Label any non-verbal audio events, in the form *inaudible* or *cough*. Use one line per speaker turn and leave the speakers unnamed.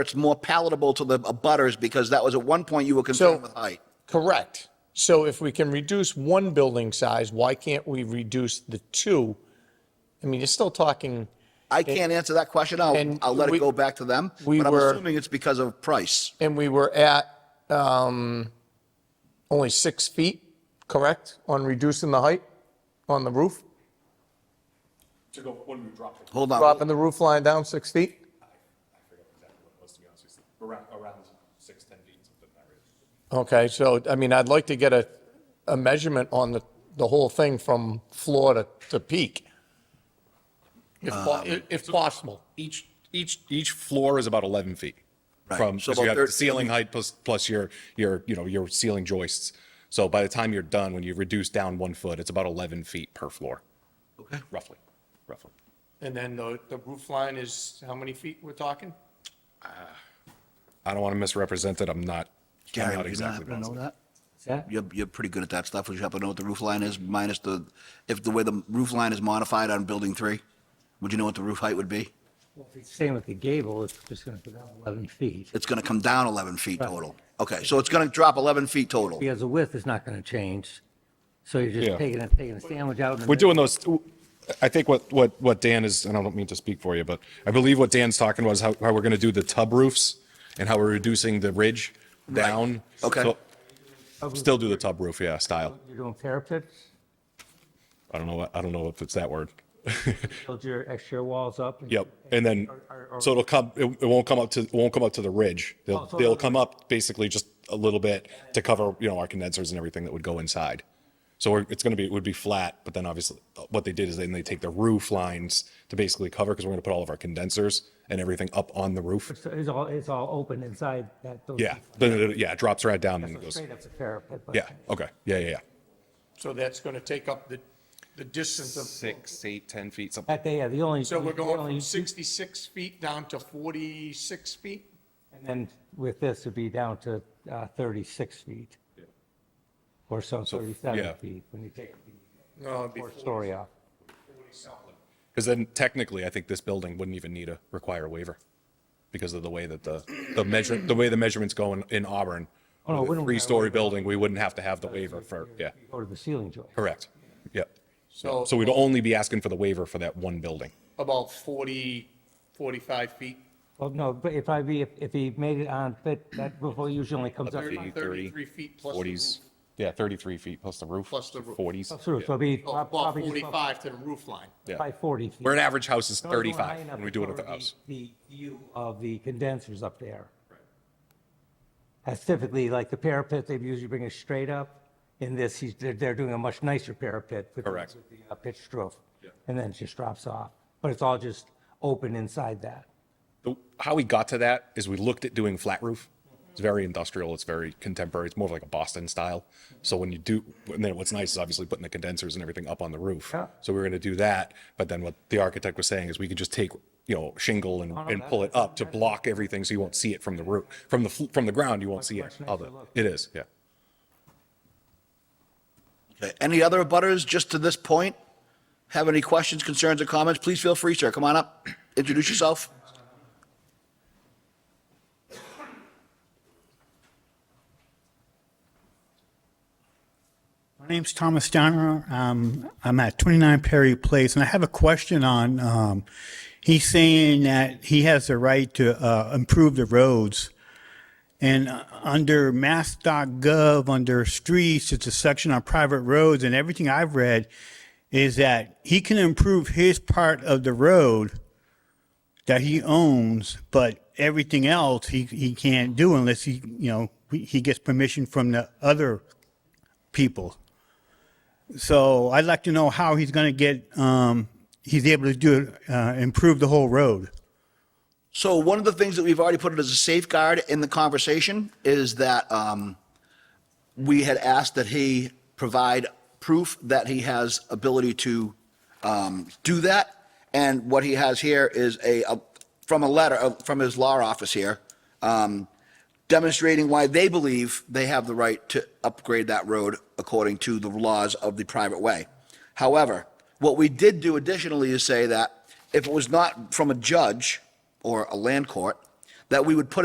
it's more palatable to the abutters because that was at one point you were concerned with height.
Correct. So if we can reduce one building size, why can't we reduce the two? I mean, you're still talking,
I can't answer that question. I'll,
and
I'll let it
we-
go back to them.
we
But I'm
were-
assuming it's because of price.
and we were at um, only six feet, correct, on reducing the height on the roof?
to go when we dropped it,
Hold on.
Dropping the roof line down six feet?
was to be honest with you, around, around six, ten feet, something like that. really.
Okay, so, I mean, I'd like to get a, a measurement on the, the whole thing from floor to, to peak. If, po- if possible.
Each, each, each floor is about 11 feet from,
So
because you
about
have the
13
ceiling height plus, plus your, your, you know, your ceiling joists. So by the time you're done, when you reduce down one foot, it's about 11 feet per floor. Okay. Roughly, roughly.
And then the, the roof line is how many feet we're talking?
I don't want to misrepresent it. I'm not, I'm
Gary,
not
do you not happen
exactly
to know
positive.
that?
that?
You're, you're pretty good at that stuff. Would you happen to know what the roof line is minus the, if the way the roof line is modified on building three? Would you know what the roof height would be?
Well, if it's Same with the gable, it's just going to go down 11 feet.
It's going to come down 11 feet total. Okay, so it's going to drop 11 feet total.
Because the width is not going to change, so you're
Yeah.
just taking, a- taking a sandwich out. in the
We're
middle.
doing those, I think what, what, what Dan is, and I don't mean to speak for you, but I believe what Dan's talking about is how, how we're going to do the tub roofs and how we're reducing the ridge down.
Okay.
So- Still do the tub roof, yeah, style.
You're doing parapets,
I don't know, what- I don't know if it's that word. *laughs*
build your exterior walls up. and-
Yep. And then, so it'll come, it, it won't come up to, it won't come up to the ridge. They'll,
Oh, so
they'll
it'll-
come up basically just a little bit to cover, you know, our condensers and everything that would go inside. So we're, it's going to be, it would be flat, but then obviously uh, what they did is then they take the roof lines to basically cover because we're going to put all of our condensers and everything up on the roof.
So it's all, it's all open inside that. those-
Yeah. Then, it- yeah, it drops right down and
So
it goes.
Straight up the parapet. but-
Yeah. Okay. Yeah. Yeah. Yeah.
So that's going to take up the, the distance of,
six, eight, ten feet, something.
That day, yeah, the only.
so we're
the
going
only-
from 66 feet down to 46 feet?
And then with this, it'd be down to uh, 36 feet. Or so,
yeah.
37 feet, when you take the
No, it'd be
fourth story off.
Because then technically, I think this building wouldn't even need a require a waiver because of the way that the, the measure, the way the measurements go in, in Auburn.
Oh, no,
with a
we don't-
Three-story building, we wouldn't have to have the waiver for, yeah,
You Go to the ceiling joist.
correct. Yep.
So-
So we'd only be asking for the waiver for that one building.
About 40, 45 feet?
Well, no, but if I be, if if he made it on, that, that roof hole usually only comes up
Thirty,
33 feet plus the
40s.
roof.
Yeah, thirty-three feet plus the roof.
Plus the roof.
Forties.
through, so it'd be
Oh,
prob-
About
probably just about
45 to the roof line.
Yeah.
by 40 feet.
Where an average house is
It's only going high
thirty-five
enough
when we
to
do it at
cover
the house.
The view of the condensers up there. That's typically like the parapet, they usually bring it straight up. In this, he's, they're, they're doing a much nicer parapet. with the-
Correct.
With the uh, pitched roof. And then it just drops off, but it's all just open inside that.
the- how we got to that is we looked at doing flat roof. It's very industrial. It's very contemporary. It's more of like a Boston style. So when you do, and then what's nice is obviously putting the condensers and everything up on the roof.
Yeah.
So we were going to do that, but then what the architect was saying is we could just take, you know, shingle
Oh,
and, and pull it up to block everything, so you won't see it from the roof, from the fl- from the ground. You won't see it.
much nicer
All the-
look.
It is, yeah.
Okay, Any other abutters just to this point? Have any questions, concerns, or comments? Please feel free, sir. Come on up, introduce yourself.
My name's Thomas Downer. Um, I'm at 29 Perry Place, and I have a question on, um, he's saying that he has the right to, uh, improve the roads. And uh, under mass.gov, under streets, it's a section on private roads, and everything I've read is that he can improve his part of the road that he owns, but everything else he, he can't do unless he, you know, he he gets permission from the other people. So I'd like to know how he's going to get, um, he's able to do, it, uh, improve the whole road.
So one of the things that we've already put it as a safeguard in the conversation is that um, we had asked that he provide proof that he has ability to um, do that. And what he has here is a, a- from a letter, uh, from his law office here, um, demonstrating why they believe they have the right to upgrade that road according to the laws of the private way. However, what we did do additionally is say that if it was not from a judge or a land court, that we would put it.